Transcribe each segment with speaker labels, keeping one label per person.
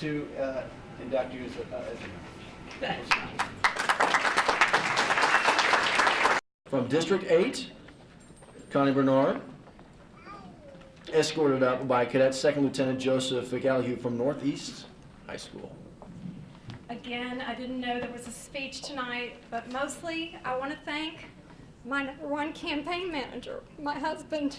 Speaker 1: to uh, induct you as a, uh, as a
Speaker 2: From District 8, Connie Bernard, escorted up by Cadet Second Lieutenant Joseph McAlhue from Northeast High School.
Speaker 3: Again, I didn't know there was a speech tonight, but mostly I want to thank my number one campaign manager, my husband,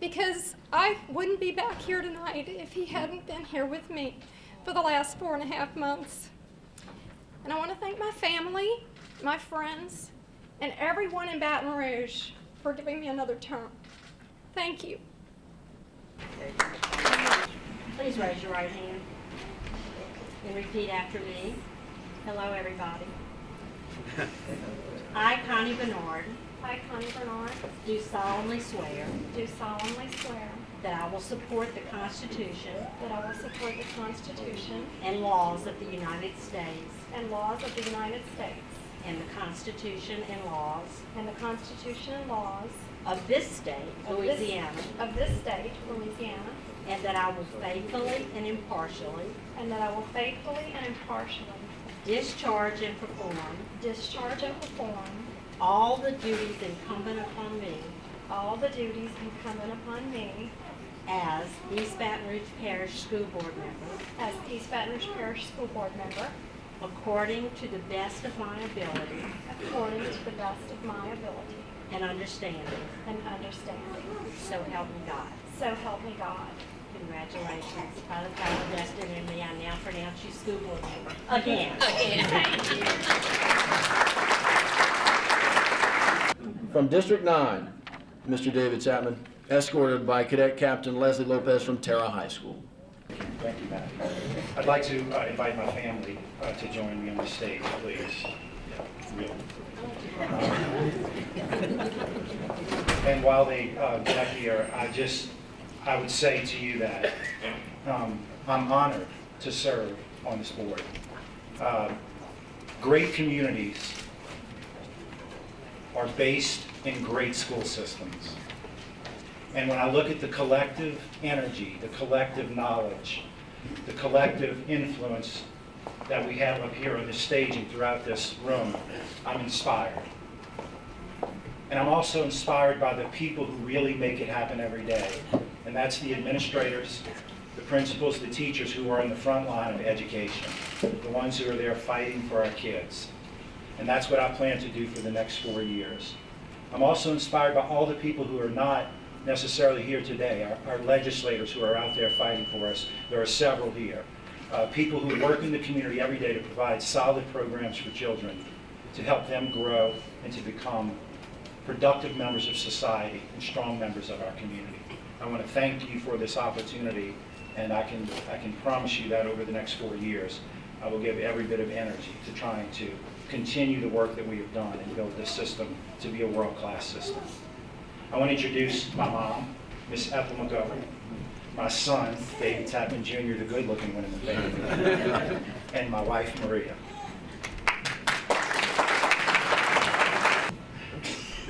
Speaker 3: because I wouldn't be back here tonight if he hadn't been here with me for the last four and a half months. And I want to thank my family, my friends, and everyone in Baton Rouge for giving me another term. Thank you.
Speaker 4: Please raise your right hand and repeat after me. Hello, everybody. I, Connie Bernard,
Speaker 3: I, Connie Bernard,
Speaker 4: do solemnly swear
Speaker 3: do solemnly swear
Speaker 4: that I will support the Constitution
Speaker 3: that I will support the Constitution
Speaker 4: and laws of the United States
Speaker 3: and laws of the United States
Speaker 4: and the Constitution and laws
Speaker 3: and the Constitution and laws
Speaker 4: of this state,
Speaker 3: Of this-
Speaker 4: Louisiana,
Speaker 3: of this state, Louisiana,
Speaker 4: and that I will faithfully and impartially
Speaker 3: and that I will faithfully and impartially
Speaker 4: discharge and perform
Speaker 3: discharge and perform
Speaker 4: all the duties incumbent upon me
Speaker 3: all the duties incumbent upon me
Speaker 4: as East Baton Rouge Parish School Board member
Speaker 3: as East Baton Rouge Parish School Board member
Speaker 4: According to the best of my ability
Speaker 3: according to the best of my ability
Speaker 4: and understanding,
Speaker 3: and understanding.
Speaker 4: so help me God.
Speaker 3: So help me God.
Speaker 4: Congratulations. By the power vested in me, I now pronounce you school board member. Again. Again.
Speaker 2: From District 9, Mr. David Chapman, escorted by Cadet Captain Leslie Lopez from Terra High School.
Speaker 5: Thank you, Matt. I'd like to uh, invite my family uh, to join me on the stage, please. Real. And while they uh, get up here, I just, I would say to you that um, I'm honored to serve on this board. Uh, Great communities are based in great school systems. And when I look at the collective energy, the collective knowledge, the collective influence that we have up here on this stage and throughout this room, I'm inspired. And I'm also inspired by the people who really make it happen every day. And that's the administrators, the principals, the teachers who are on the front line of education, the ones who are there fighting for our kids. And that's what I plan to do for the next four years. I'm also inspired by all the people who are not necessarily here today, our- our legislators who are out there fighting for us. There are several here. Uh, People who work in the community every day to provide solid programs for children, to help them grow and to become productive members of society and strong members of our community. I want to thank you for this opportunity, and I can, I can promise you that over the next four years, I will give every bit of energy to trying to continue the work that we have done and build this system to be a world-class system. I want to introduce my mom, Miss Ethel Montgomery, my son, David Tappan Jr., the good-looking one in the family, and my wife, Maria.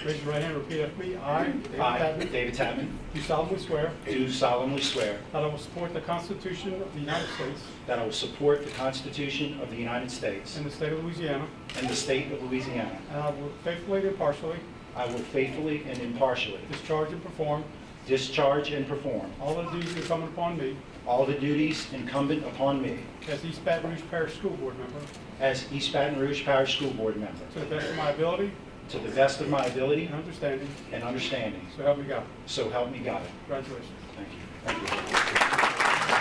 Speaker 6: Raise your right hand, repeat after me. I, David
Speaker 5: I,
Speaker 6: Tadman,
Speaker 5: David Tappan,
Speaker 6: do solemnly swear
Speaker 5: do solemnly swear
Speaker 6: that I will support the Constitution of the United States
Speaker 5: That I will support the Constitution of the United States
Speaker 6: and the state of Louisiana,
Speaker 5: and the state of Louisiana.
Speaker 6: and I will faithfully and impartially
Speaker 5: I will faithfully and impartially
Speaker 6: discharge and perform
Speaker 5: discharge and perform
Speaker 6: all the duties incumbent upon me
Speaker 5: all the duties incumbent upon me
Speaker 6: as East Baton Rouge Parish School Board member
Speaker 5: as East Baton Rouge Parish School Board member
Speaker 6: to the best of my ability
Speaker 5: to the best of my ability
Speaker 6: and understanding,
Speaker 5: and understanding.
Speaker 6: so help me God.
Speaker 5: So help me God.
Speaker 6: Congratulations.
Speaker 5: Thank you. Thank you.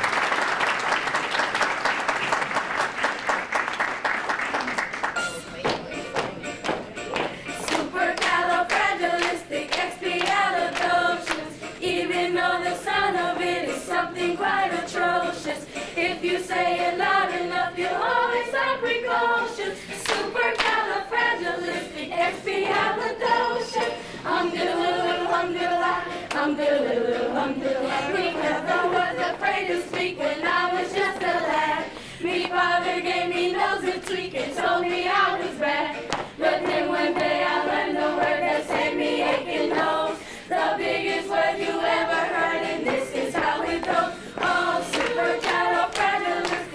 Speaker 7: Supercalifragilisticexpialidocious. Even though the sound of it is something quite atrocious, if you say it loud enough, you'll always sound precocious. Supercalifragilisticexpialidocious. Umdiddle-oo, umdiddle-ah, umdiddle-oo, umdiddle-ah. We never was afraid to speak when I was just a lad. Me father gave me nose and tweak and told me I was